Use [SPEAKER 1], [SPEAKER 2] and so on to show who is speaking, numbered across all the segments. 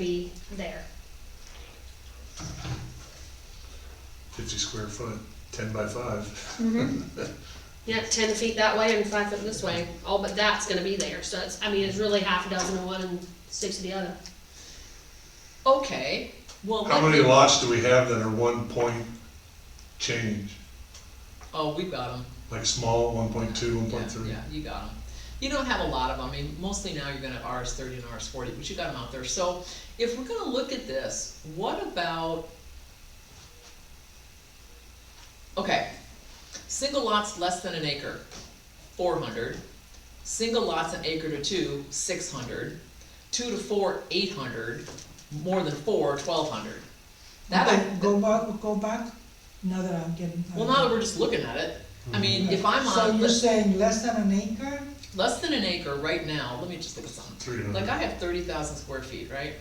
[SPEAKER 1] be there.
[SPEAKER 2] fifty square foot, ten by five.
[SPEAKER 1] Yep, ten feet that way and five foot this way, all but that's gonna be there, so it's, I mean, it's really half a dozen of one and six of the other.
[SPEAKER 3] Okay, well,
[SPEAKER 2] How
[SPEAKER 3] let
[SPEAKER 2] many
[SPEAKER 3] me,
[SPEAKER 2] lots do we have that are one point change?
[SPEAKER 3] oh, we've got them.
[SPEAKER 2] Like small, one point two, one point three?
[SPEAKER 3] Yeah, you got them. You don't have a lot of them, I mean, mostly now you're gonna have RS thirty and RS forty, but you got them out there. So if we're gonna look at this, what about? Okay, single lots less than an acre, four hundred. Single lots an acre to two, six hundred. Two to four, eight hundred. More than four, twelve hundred. That, I-
[SPEAKER 4] Go go back, go back, now that I'm getting.
[SPEAKER 3] well, now that we're just looking at it, I mean, if I'm on.
[SPEAKER 4] Mm-hmm. So you're
[SPEAKER 3] let's-
[SPEAKER 4] saying less than an acre?
[SPEAKER 3] Less than an acre right now, let me just look at something.
[SPEAKER 4] Mm-hmm.
[SPEAKER 2] Three
[SPEAKER 3] Like I
[SPEAKER 2] hundred.
[SPEAKER 3] have thirty thousand square feet, right?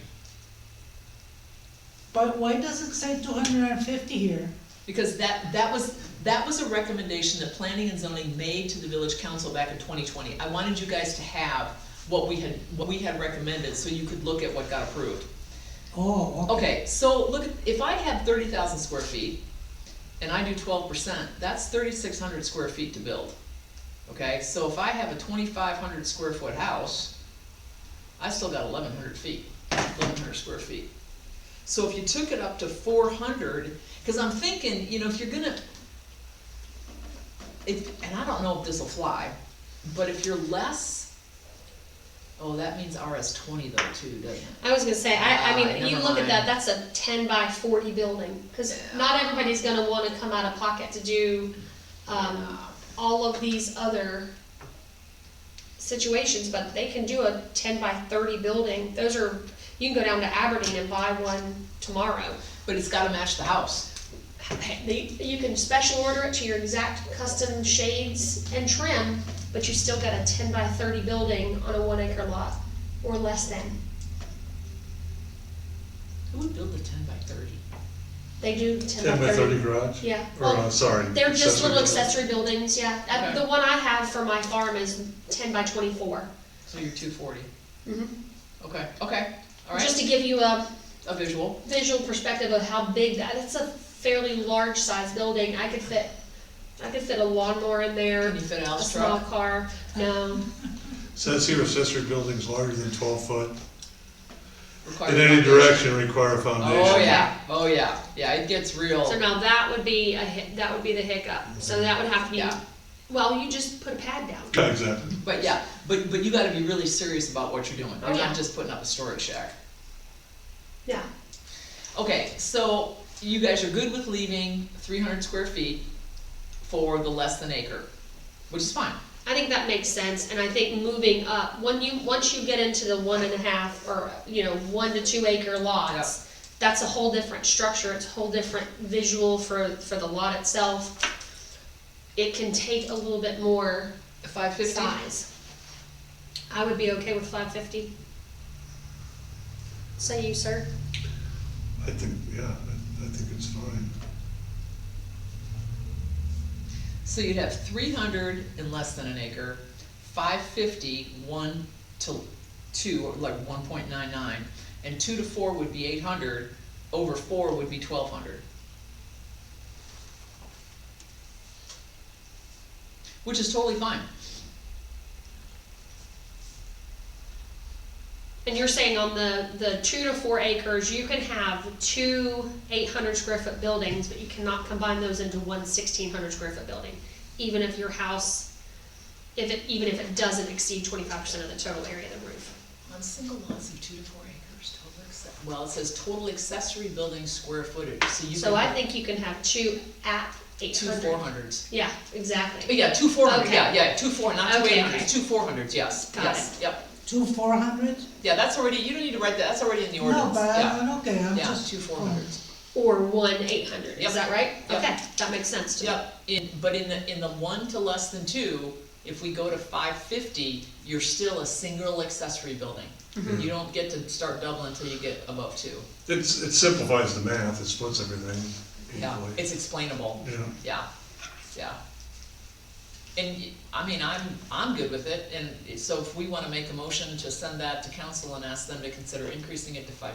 [SPEAKER 4] But why does it say two hundred and fifty here?
[SPEAKER 3] Because that, that was, that was a recommendation that planning and zoning made to the village council back in twenty twenty. I wanted you guys to have what we had, what we had recommended, so you could look at what got approved.
[SPEAKER 4] Oh, okay.
[SPEAKER 3] Okay, so look, at if I have thirty thousand square feet, and I do twelve percent, that's thirty-six hundred square feet to build. Okay, so if I have a twenty-five hundred square foot house, I still got eleven hundred feet, eleven hundred square feet. So if you took it up to four hundred, cause I'm thinking, you know, if you're gonna, if, and I don't know if this'll fly, but if you're less, oh, that means RS twenty though too, doesn't it?
[SPEAKER 1] I was gonna say, I, I
[SPEAKER 3] Ah,
[SPEAKER 1] mean, you
[SPEAKER 3] never
[SPEAKER 1] look at that,
[SPEAKER 3] mind.
[SPEAKER 1] that's a ten by forty building, cause not everybody's gonna wanna come out of pocket to do, um, all of these other situations, but they can do a ten by thirty building, those are, you can go down to Aberdeen and buy one tomorrow.
[SPEAKER 3] But it's gotta match the house.
[SPEAKER 1] They, you can special order it to your exact custom shades and trim, but you still got a ten by thirty building on a one acre lot, or less than.
[SPEAKER 3] Who would build a ten by thirty?
[SPEAKER 1] They do ten
[SPEAKER 2] Ten by thirty garage?
[SPEAKER 1] Yeah,
[SPEAKER 2] Or, uh,
[SPEAKER 1] well,
[SPEAKER 2] sorry.
[SPEAKER 1] they're just little
[SPEAKER 2] accessory
[SPEAKER 1] accessory buildings, yeah, Uh,
[SPEAKER 3] Okay.
[SPEAKER 1] the one I have for my farm is ten by twenty-four.
[SPEAKER 3] So you're two forty.
[SPEAKER 1] Mhm.
[SPEAKER 3] Okay, okay,
[SPEAKER 1] Just
[SPEAKER 3] alright,
[SPEAKER 1] to give you a
[SPEAKER 3] a visual.
[SPEAKER 1] visual perspective of how big that, it's a fairly large sized building, I could fit, I could fit a lawnmower in there,
[SPEAKER 3] Can you fit
[SPEAKER 1] a
[SPEAKER 3] Al's
[SPEAKER 1] small
[SPEAKER 3] truck?
[SPEAKER 1] car, no,
[SPEAKER 2] building. Says here accessory buildings larger than twelve foot
[SPEAKER 3] Require
[SPEAKER 2] in any
[SPEAKER 3] foundation.
[SPEAKER 2] direction require a foundation.
[SPEAKER 3] Oh, yeah, oh, yeah, yeah, it gets real.
[SPEAKER 1] so now that would be a hi- that would be the hiccup, so that would have to be,
[SPEAKER 3] Yeah.
[SPEAKER 1] well, you just put a pad down.
[SPEAKER 2] Okay, Exactly.
[SPEAKER 3] But yeah, but, but you gotta be really serious about what you're doing.
[SPEAKER 1] Oh,
[SPEAKER 3] You're
[SPEAKER 1] yeah.
[SPEAKER 3] not just putting up a storage shack.
[SPEAKER 1] Yeah.
[SPEAKER 3] Okay, so you guys are good with leaving three hundred square feet for the less than acre, which is fine.
[SPEAKER 1] I think that makes sense, and I think moving up, when you, once you get into the one and a half, or, you know, one to two acre lots, that's a whole different structure, it's a whole different visual for, for the lot itself. It can take a little bit more
[SPEAKER 3] Five fifty?
[SPEAKER 1] size. I would be okay with five fifty. Say you, sir?
[SPEAKER 2] I think, yeah, I, I think it's fine.
[SPEAKER 3] So you'd have three hundred and less than an acre, five fifty, one to two, or like one point nine nine, and two to four would be eight hundred, over four would be twelve hundred. Which is totally fine.
[SPEAKER 1] And you're saying on the, the two to four acres, you can have two eight hundred square foot buildings, but you cannot combine those into one sixteen hundred square foot building, even if your house, if it, even if it doesn't exceed twenty-five percent of the total area of the roof.
[SPEAKER 3] On single lots of two to four acres, total access. Well, it says total accessory building square footage, so you
[SPEAKER 1] So I
[SPEAKER 3] can,
[SPEAKER 1] think you can have two at eight
[SPEAKER 3] two four
[SPEAKER 1] hundred.
[SPEAKER 3] hundreds.
[SPEAKER 1] Yeah, exactly.
[SPEAKER 3] Yeah, two four hundred,
[SPEAKER 1] Okay.
[SPEAKER 3] yeah, yeah, two four, not two
[SPEAKER 1] Okay,
[SPEAKER 3] eight
[SPEAKER 1] okay.
[SPEAKER 3] hundreds, two four hundreds, yes,
[SPEAKER 1] Got
[SPEAKER 3] yes, yep.
[SPEAKER 4] Two four hundred?
[SPEAKER 3] Yeah, that's already, you don't need to write that, that's already in the
[SPEAKER 4] No,
[SPEAKER 3] ordinance,
[SPEAKER 4] but I-
[SPEAKER 3] yeah.
[SPEAKER 4] I'm okay, I'm
[SPEAKER 3] Yeah,
[SPEAKER 4] just.
[SPEAKER 3] two four hundreds.
[SPEAKER 1] Or one eight hundred, is
[SPEAKER 3] Yep.
[SPEAKER 1] that right?
[SPEAKER 3] Yep.
[SPEAKER 1] Okay, that makes sense to me.
[SPEAKER 3] Yep, in, but in the, in the one to less than two, if we go to five fifty, you're still a single accessory building.
[SPEAKER 4] Mm-hmm.
[SPEAKER 2] Mhm.
[SPEAKER 3] You don't get to start doubling until you get above two.
[SPEAKER 2] It's, it simplifies the math, it splits everything
[SPEAKER 3] Yeah,
[SPEAKER 2] equally.
[SPEAKER 3] it's explainable,
[SPEAKER 2] Yeah,
[SPEAKER 3] yeah, yeah. And, y- I mean, I'm, I'm good with it, and so if we wanna make a motion to send that to council and ask them to consider increasing it to five